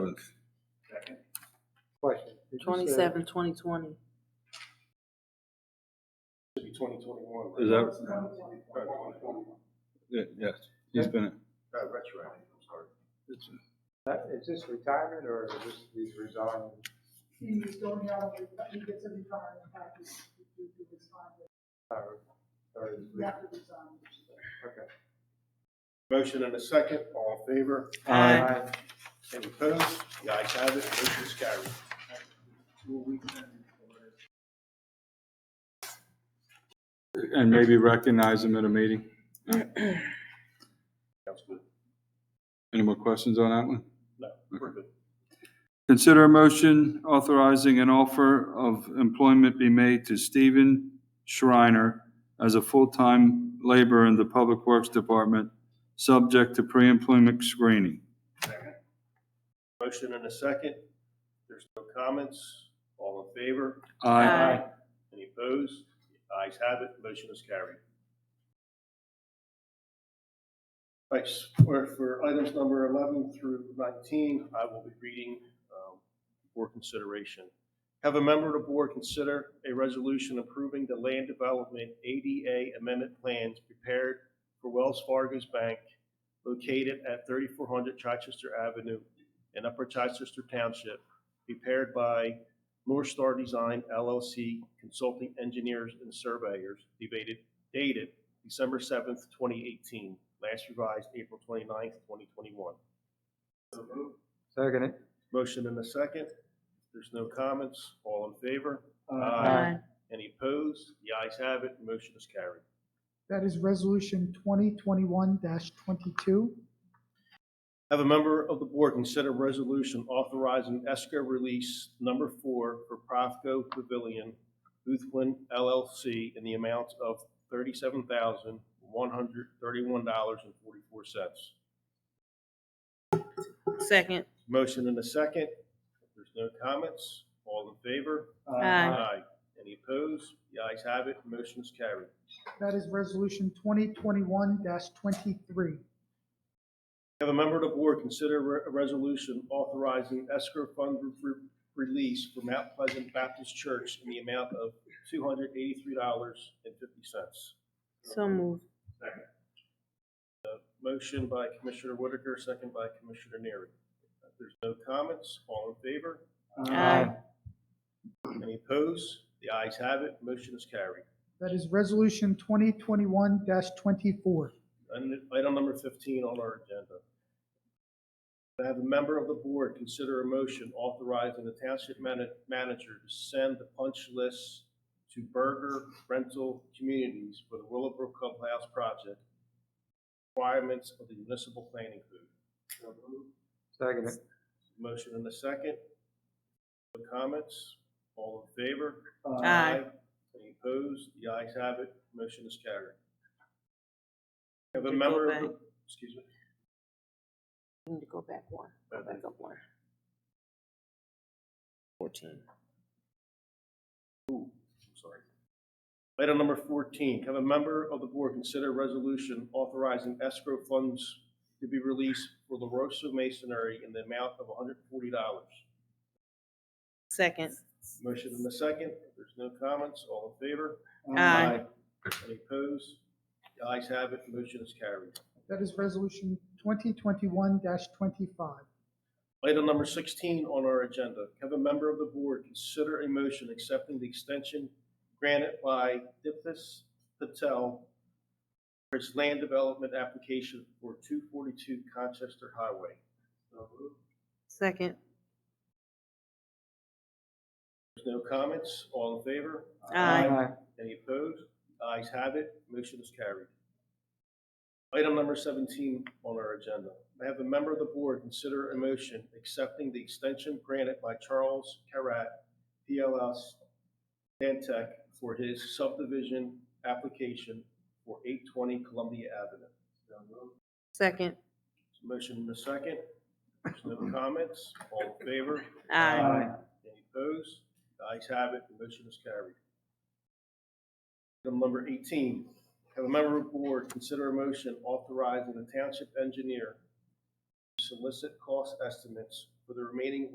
Twenty-seven, twenty twenty. Should be twenty twenty-one. Is that- Twenty twenty-one, Yeah, Yes, he's been, a- not retroactive, I'm sorry. it's a- That- Is this retirement or is this, he's resigning? He's going out, he gets a retirement package due to his time, but Or is he has to resign. Okay. Motion and a second, all in favor? Any opposed? The ayes have it, motion is carried. and maybe recognize him at a meeting. Sounds good. Any more questions on that one? No, we're good. Consider a motion authorizing an offer of employment be made to Stephen Shriner as a full-time laborer in the Public Works Department, subject to pre-employment screening. Motion and a second, there's no comments, all in favor? Aye. Any opposed? The ayes have it, motion is carried. Thanks. For, for items number 11 through 19, I will be reading um, for consideration. Have a member of the board consider a resolution approving the land development ADA amendment plans prepared for Wells Fargo's Bank located at 3400 Chichester Avenue in Upper Chichester Township, prepared by North Star Design LLC Consulting Engineers and Surveyors, dated, dated December seventh, twenty eighteen, last revised April 29th, twenty-one. Second it. Motion and a second. There's no comments. All in favor? Aye. Any opposed? The ayes have it. Motion is carried. That is resolution twenty twenty-one twenty-two. Have a member of the board consider resolution authorizing escrow release number four for Profco Pavilion, Boothwin LLC in the amount of thirty-seven thousand, one hundred thirty-one dollars and forty-four cents. Second. Motion and a second. If there's no comments, all in favor? Aye. Any opposed? The ayes have it. Motion is carried. That is resolution twenty twenty-one twenty-three. Have a member of the board consider re- a resolution authorizing escrow fund re- re- release for Mount Pleasant Baptist Church in the amount of two hundred eighty-three dollars and fifty cents. So moved. Motion by Commissioner Whitaker, second by Commissioner Neary. If there's no comments, all in favor? Aye. Any opposed? The ayes have it. Motion is carried. That is resolution twenty twenty-one twenty-four. Item item number fifteen on our agenda. I have a member of the board consider a motion authorizing the township mana- manager to send the punch list to burger rental communities for the Willowbrook Clubhouse project requirements of the municipal planning code. Second it. Motion and a second. No Comments? All in favor? Aye. Any opposed? The ayes have it. Motion is carried. Have a Go member of back. the, excuse me. I need to go back one, go back up one. Fourteen. Ooh, I'm sorry. Item number fourteen, have a member of the board consider a resolution authorizing escrow funds to be released for La Rosa Masonry in the amount of hundred and forty dollars. Second. Motion in the second, if there's no comments, all in favor? Aye. Any opposed? The ayes have it, motion is carried. That is resolution twenty twenty-one twenty-five. Item number sixteen on our agenda, have a member of the board consider a motion accepting the extension granted by Dipthus Patel for its land development application for two forty-two Conchester Highway. Second. There's no comments, all in favor? Aye. Any opposed? The Ayes have it, motion is carried. Item number seventeen on our agenda. May I have a member of the board consider a motion accepting the extension granted by Charles Carrat, PLS, Dantech, for his subdivision application for eight twenty Columbia Avenue. Second. Motion in a second. There's no comments. All in favor? Aye. Any opposed? The ayes have it, the motion is carried. Item number eighteen, have a member of the board consider a motion authorizing the township engineer to solicit cost estimates for the remaining